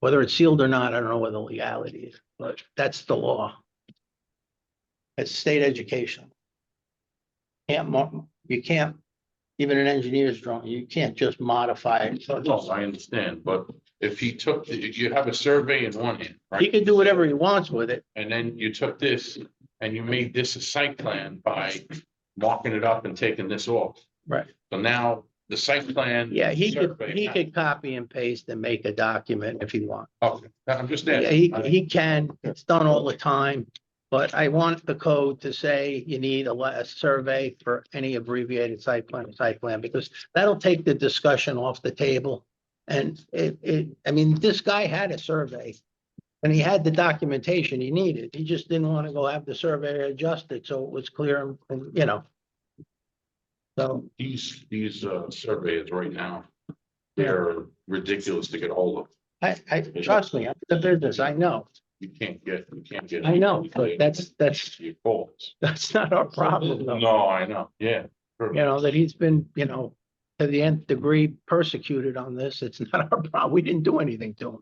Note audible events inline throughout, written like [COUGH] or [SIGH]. Whether it's sealed or not, I don't know what the legality is, but that's the law. It's state education. Can't, mo- you can't, even an engineer's drawing, you can't just modify it. So it's No, all- I understand, but if he took, the- you have a survey in one hand, He right? can do whatever he wants with it. And then you took this and you made this a site plan by marking it up and taking this off. Right. So now the site plan. Yeah, he could, survey- he could copy and paste and make a document if he wants. Okay, oh, I'm just Yeah, asking. uh, he, he can, it's done all the time, but I want the code to say you need a, le- a survey for any abbreviated site plan, site plan, because that'll take the discussion off the table. And it, it, I mean, this guy had a survey and he had the documentation he needed. He just didn't want to go have the surveyor adjust it, so it was clear, and- and, you know. So, These, these uh, surveys right now, they're ridiculous to get hold of. I, I, trust me, I'm in the business, I know, You can't get, you can't get. I know, but that's, that's, [LAUGHS] Your calls. that's not our problem though. No, I know, yeah. you know, that he's been, you know, to the nth degree persecuted on this. It's [LAUGHS] not our problem. We didn't do anything to him.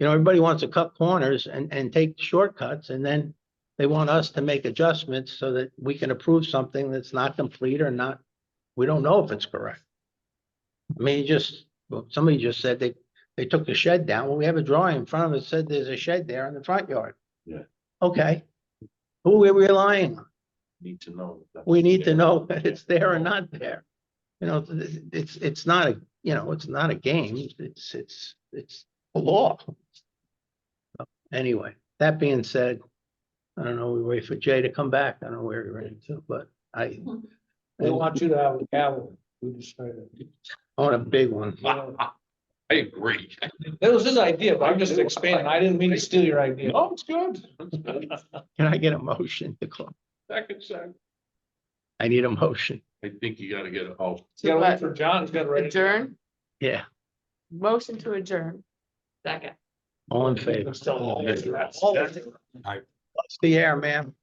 You know, everybody wants to cut corners and, and take shortcuts and then they want us to make adjustments so that we can approve something that's not complete or not, we don't know if it's correct. I mean, he just, well, somebody just said they, they took the shed down. Well, we have a drawing in front of it that said there's a shed there in the front yard. Yeah. Okay. Who are we relying on? Need to know. that- we need to know that it's there or not there. You know, th- th- it's, it's not a, you know, it's not a game, it's, it's, it's a law. Anyway, that being said, I don't know, we wait for Jay to come back, I don't know where he ran to, but I. We I want you to have a gavel. We decided. want a big one, I agree. That was his idea, but I'm just expanding. I didn't mean to steal your idea. Oh, it's good. It's good. can I get a motion to close? Second, second. I need a motion, I think you gotta get a, oh, You gotta wait for John. He's got to write. Adjourn, yeah, motion to adjourn. Second. all in favor, Still- Oh, that's- All of it. What's the air, ma'am.